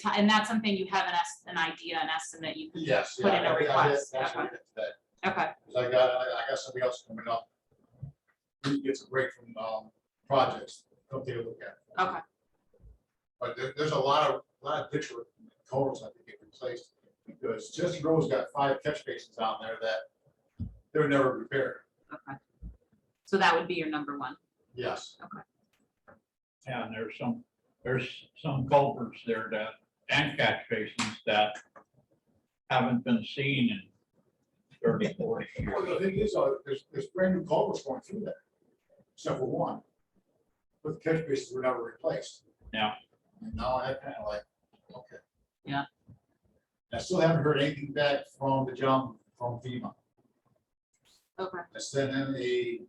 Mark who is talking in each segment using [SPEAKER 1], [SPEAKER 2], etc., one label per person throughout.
[SPEAKER 1] ti- and that's something you have an es- an idea, an estimate you can,
[SPEAKER 2] Yes.
[SPEAKER 1] Put
[SPEAKER 2] yeah,
[SPEAKER 1] in a
[SPEAKER 2] I think I did-
[SPEAKER 1] request,
[SPEAKER 2] that's what I
[SPEAKER 1] okay.
[SPEAKER 2] did today.
[SPEAKER 1] okay,
[SPEAKER 2] Cause I got, I I got somebody else coming up. Who gets a break from, um, projects, come take a look at. it.
[SPEAKER 1] Okay.
[SPEAKER 2] But there, there's a lot of, lot of ditch totals that get replaced, because just Road's got five catch basins down there that they're never repaired,
[SPEAKER 1] okay. So that would be your number one.
[SPEAKER 2] yes.
[SPEAKER 3] And there's some, there's some culverts there that, and catch basins that haven't been seen in 30, 40
[SPEAKER 2] Well, the
[SPEAKER 3] years.
[SPEAKER 2] thing is, uh, there's, there's brand new culverts going through there, except for one. But the catch basins were never replaced.
[SPEAKER 3] Yeah.
[SPEAKER 2] And now I kind of like, okay.
[SPEAKER 1] Yeah.
[SPEAKER 2] I still haven't heard anything back from the jump from FEMA.
[SPEAKER 1] Okay.
[SPEAKER 2] I sent in a,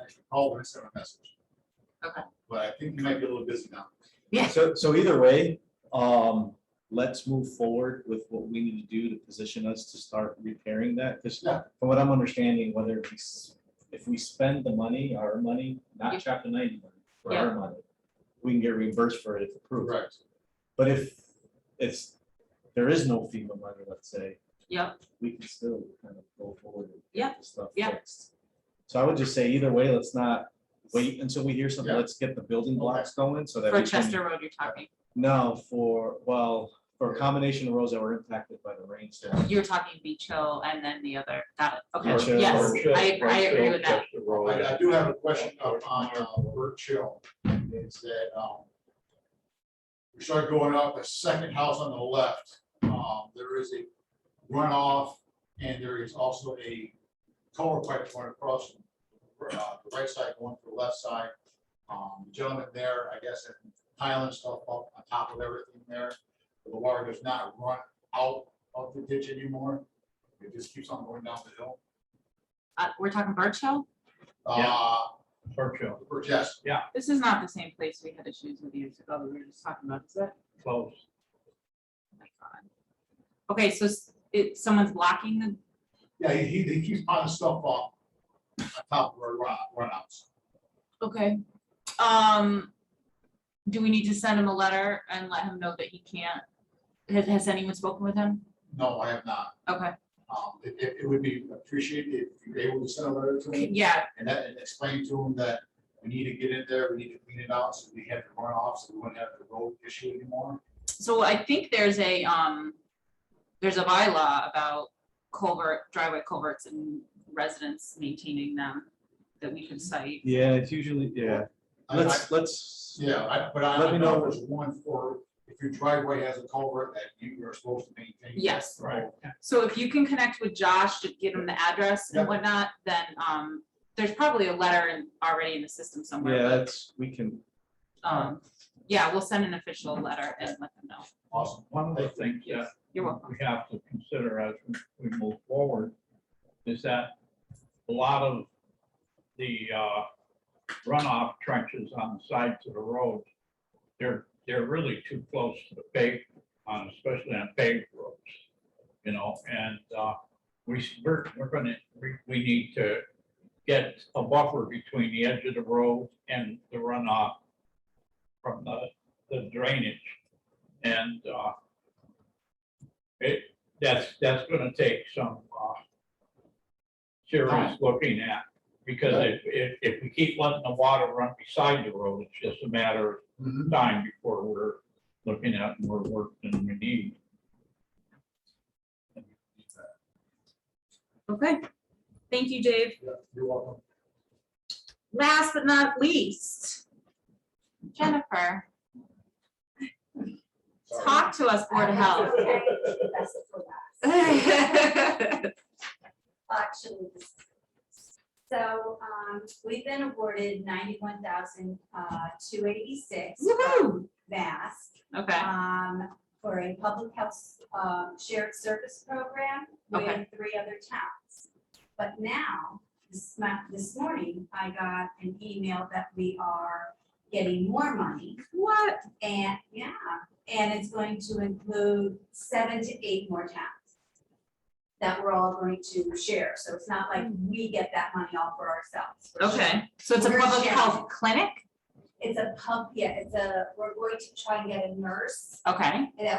[SPEAKER 2] actually called and sent a message.
[SPEAKER 1] Okay.
[SPEAKER 2] But I think you might be a little busy now.
[SPEAKER 4] So, so either way, um, let's move forward with what we need to do to position us to start repairing that, because
[SPEAKER 2] Yeah.
[SPEAKER 4] from what I'm understanding, whether we, s- if we spend the money, our money,
[SPEAKER 1] Yeah.
[SPEAKER 4] not chapter ninety money, but our money, we can get reimbursed for it if approved.
[SPEAKER 2] Correct.
[SPEAKER 4] But if it's, there is no FEMA money, let's say,
[SPEAKER 1] Yeah,
[SPEAKER 4] we can still kind of go forward. and
[SPEAKER 1] Yeah,
[SPEAKER 4] get this Stuff
[SPEAKER 1] yeah.
[SPEAKER 4] fixed. So I would just say either way, let's not wait until we hear something,
[SPEAKER 2] Yeah.
[SPEAKER 4] let's get the building blocks going so that
[SPEAKER 1] for
[SPEAKER 4] we can.
[SPEAKER 1] Chester Road you're talking,
[SPEAKER 4] No, for, well, for a
[SPEAKER 2] Yeah.
[SPEAKER 4] combination of roads that were impacted by the rainstorm.
[SPEAKER 1] you were talking Beach Hill and then the other, got it, okay,
[SPEAKER 4] Beach Hill,
[SPEAKER 1] yes, I, I agree with that.
[SPEAKER 2] Oh, I, I do have a question up on uh, Burt Chill, is that, um, we start going up, the second house on the left, um, there is a runoff, and there is also a culvert pipe going across from, uh, the right side going to the left side. Um, the gentleman there, I guess, is piling stuff up on top of everything there, so the water does not run out of the ditch anymore, it just keeps on going down the hill.
[SPEAKER 1] Uh, we're talking Birch Hill?
[SPEAKER 3] Yeah.
[SPEAKER 2] Uh,
[SPEAKER 3] Churchill,
[SPEAKER 2] Burt, yes,
[SPEAKER 1] This is not the same place we had issues with years ago, that we were just talking about, is it?
[SPEAKER 3] close.
[SPEAKER 1] Oh my God. Okay, so s- it, someone's blocking the,
[SPEAKER 2] Yeah, he, he he keeps piling stuff off on top of our run, runouts.
[SPEAKER 1] okay, um, do we need to send him a letter and let him know that he can't? Has, has anyone spoken with him?
[SPEAKER 2] No, I have not.
[SPEAKER 1] Okay,
[SPEAKER 2] Um, it, it, it would be appreciated if you're able to send a letter to him
[SPEAKER 1] yeah,
[SPEAKER 2] and that, and explain to him that we need to get in there, we need to clean it out, so we have the runoff, so we wouldn't have the road issue anymore.
[SPEAKER 1] so I think there's a, um, there's a bylaw about culvert, driveway culverts and residents maintaining them that we can cite.
[SPEAKER 4] Yeah, it's usually, yeah,
[SPEAKER 2] I- I-
[SPEAKER 4] let's, let's,
[SPEAKER 2] Yeah, I, but I,
[SPEAKER 4] Let
[SPEAKER 2] I
[SPEAKER 4] me
[SPEAKER 2] know
[SPEAKER 4] know.
[SPEAKER 2] there's one for, if your driveway has a culvert that you are supposed to maintain.
[SPEAKER 1] Yes.
[SPEAKER 3] Right.
[SPEAKER 1] So if you can connect with Josh to get him the address
[SPEAKER 2] Yeah.
[SPEAKER 1] and whatnot, then, um, there's probably a letter in, already in the system somewhere.
[SPEAKER 4] yeah,
[SPEAKER 1] but,
[SPEAKER 4] that's, we can,
[SPEAKER 1] Um, yeah, we'll send an official letter and let them know.
[SPEAKER 2] Awesome.
[SPEAKER 3] One of the things that
[SPEAKER 1] You're welcome.
[SPEAKER 3] we have to consider as we- we move forward is that a lot of the uh, runoff trenches on the sides of the road, they're, they're really too close to the paved, on- especially on paved roads, you know, and uh, we, s- we're, we're gonna, we- we need to get a buffer between the edge of the road and the runoff from the, the drainage. And uh, it, that's, that's gonna take some, uh, serious looking at, because if, if, if we keep letting the water run beside the road, it's just a matter
[SPEAKER 2] Mhm.
[SPEAKER 4] Mm-hmm.
[SPEAKER 3] of time before we're looking at more work than we need.
[SPEAKER 1] Okay. Thank you, Dave.
[SPEAKER 2] Yeah, You're welcome.
[SPEAKER 1] Last but not least, Jennifer,
[SPEAKER 2] Sorry.
[SPEAKER 1] talk to us, Board of Health.
[SPEAKER 5] Oh, Okay, That's it for that. Actually, this is- So, um, we've been awarded ninety-one thousand, uh, two eighty-six.
[SPEAKER 1] Woo-hoo.
[SPEAKER 5] Mass,
[SPEAKER 1] Okay,
[SPEAKER 5] um, for a public health, um, shared service program
[SPEAKER 1] Okay.
[SPEAKER 5] with three other towns. But now, this ma- this morning, I got an email that we are getting more money.
[SPEAKER 1] what?
[SPEAKER 5] And, yeah, and it's going to include seven to eight more towns that we're all going to share, so it's not like we get that money all for ourselves. We're sharing.
[SPEAKER 1] Okay, so it's a
[SPEAKER 5] We're
[SPEAKER 1] public
[SPEAKER 5] sharing.
[SPEAKER 1] health clinic?
[SPEAKER 5] It's a pub, yeah, it's a, we're going to try and get a nurse
[SPEAKER 1] Okay.
[SPEAKER 5] that